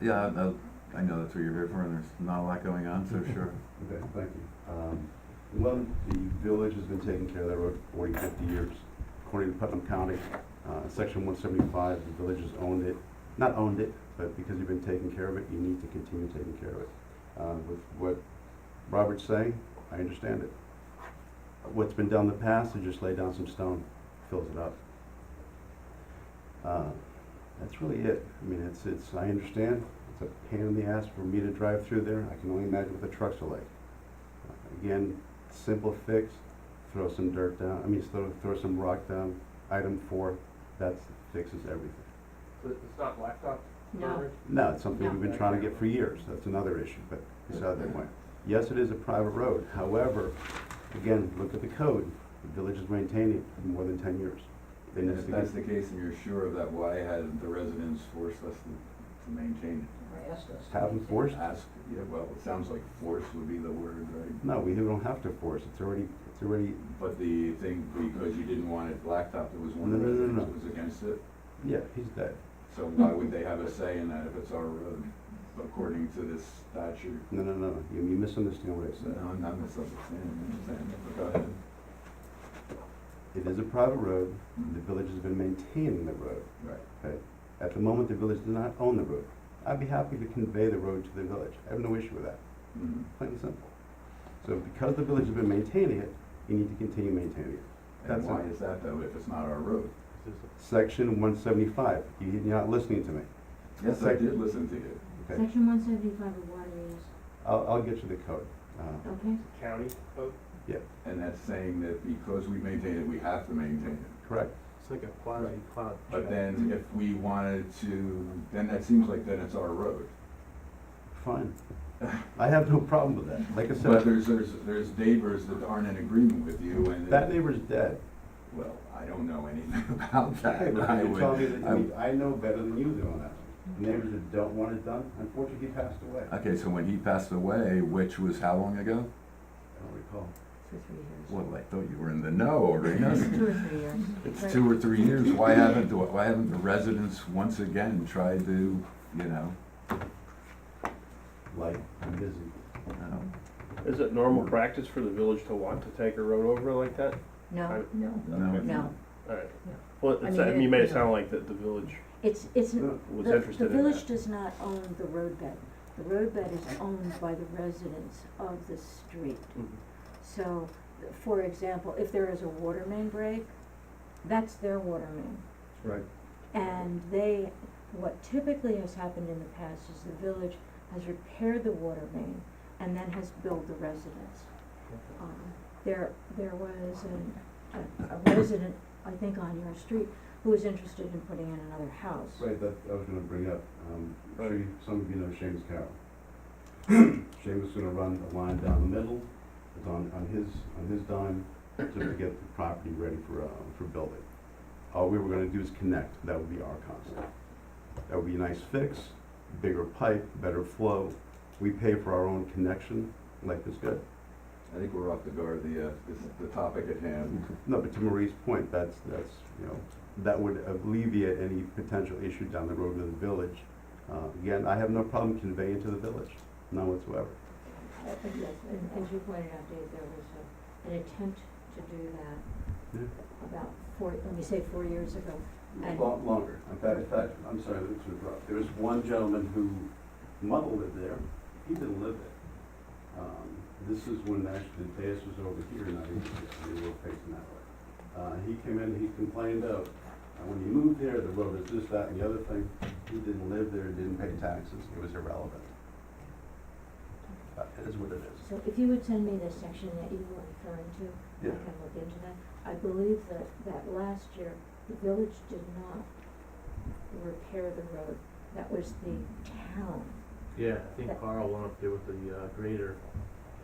Yeah, I, I know that's what you're here for, and there's not a lot going on, so sure. Okay, thank you. Um, One, the village has been taking care of that road for 40, 50 years. According to Putnam County, uh, Section 175, the village has owned it, not owned it, but because you've been taking care of it, you need to continue taking care of it. Uh, With what Robert's saying, I understand it. What's been done in the past, is just lay down some stone, fills it up. Uh, That's really it. I mean, it's, it's, I understand, it's a pain in the ass for me to drive through there. I can only imagine what the trucks are like. Again, simple fix, throw some dirt down, I mean, throw, throw some rock down. Item four, that's, fixes everything. So It's not blacktop? No, curb? No, it's something we've been trying to get for years, that's another issue, but beside the point. Yes, it is a private road, however, again, look at the code. The village has maintained it for more than ten years. They And need if to that's get- the case, and you're sure of that, why had the residents forced us to, to maintain or asked us. to Have them maintain. it? forced? Ask, yeah, well, it sounds like force would be the word, right? No, we don't have to force, it's already, it's already, But the thing, because you didn't want it blacktop, there was No, one no, no, resident no. who was against it, yeah, he's dead. so why would they have a say in that if it's our road, according to this statute? No, no, no, you you misunderstand what I So, said. no, I'm not misunderstanding, I'm saying, but go ahead. It is a private road, the village has been maintaining the road. Right. At the moment, the village does not own the road. I'd be happy to convey the road to the village, I have no issue with that, Mhm. plain and simple. So because the village has been maintaining it, you need to continue maintaining it. That's And why it. is that though, if it's not our road? Section one seventy-five, you're not listening to me. Yes, I Sec- did listen to you. Okay. Section one seventy-five of water use, I'll, I'll get you the code. Uh, okay? County vote? And that's saying that because we maintain it, we have to maintain it. Correct, It's like a quasi cloud. But then if we wanted to, then that seems like then it's our road. fine. I have no problem with that, like I But said, there's, there's, there's neighbors that aren't in agreement with you and. that neighbor's dead. Well, I don't know anything about that. But I you tell me would- that- I mean, I know better than you do on that. Neighbors that don't want it done, unfortunately, he passed away. I- Okay, so when he passed away, which was how long ago? I don't recall. For three years. Well, I thought you were in the know, Arenas. Two or three years. It's two or three years. Why haven't, the- why haven't the residents once again tried to, you know, Like, I'm busy. I don't know, Is it normal practice for the village to want to take a road over like that? No, I- No, No. no, Alright. Yeah. Well, I it's, mean, I mean, you made it- it sound like that the village it's, it's, the, No, was the interested in village that. does not own the roadbed. The roadbed is owned by the residents of the street. Mhm. So, for example, if there is a water main break, that's their water main. Right. And they, what typically has happened in the past is the village has repaired the water main and then has billed the residents. Mm-hmm. Um, There, there was an, a- a resident, I think on your street, who was interested in putting in another house. Right, that, I was gonna bring up, um, I'm sure you- some of you know Seamus Carroll. Seamus gonna run a line down the middle, it's on, on his, on his dime, to get the property ready for, uh, for building. All we were gonna do is connect, that would be our concept. That would be a nice fix, bigger pipe, better flow, we pay for our own connection, life is good. I think we're off the guard, the, uh, this, the topic at hand. No, but to Marie's point, that's, that's, you know, that would alleviate any potential issue down the road with the village. Uh, again, I have no problem conveying to the village, none whatsoever. Uh, but yes, and as you pointed out, Dave, there was a, an attempt to do Yeah. that about four, let me say four years ago. And- Lo- Longer, in fact, in fact, I'm sorry, that's interrupt. There was one gentleman who mother lived there, he didn't live there. Um, This is when actually the dais was over here, and I think we were facing that way. Uh, he came in, he complained of, uh, when he moved there, the road is this, that, and the other thing. He didn't live there, didn't pay taxes, it was irrelevant. Uh, It is what it is. So if you would send me the section that you were referring to, I Yeah. can look into that. I believe that, that last year, the village did not repair the road. That was the town. Yeah, I think Carl went up there with the uh, grader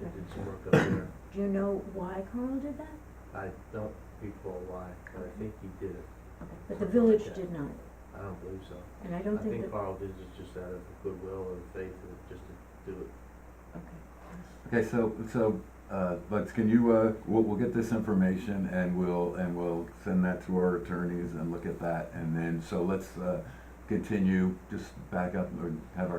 and did some work up there. Do you know why Carl did that? I don't recall why, but I think he did it. Okay, But the village did not, I don't believe so. and I don't think that, okay. Carl did it just out of goodwill and faith of just to do it. Okay, so, so, uh, but can you, uh, we'll, we'll get this information and we'll, and we'll send that to our attorneys and look at that. And then, so let's, uh, continue, just back up or have our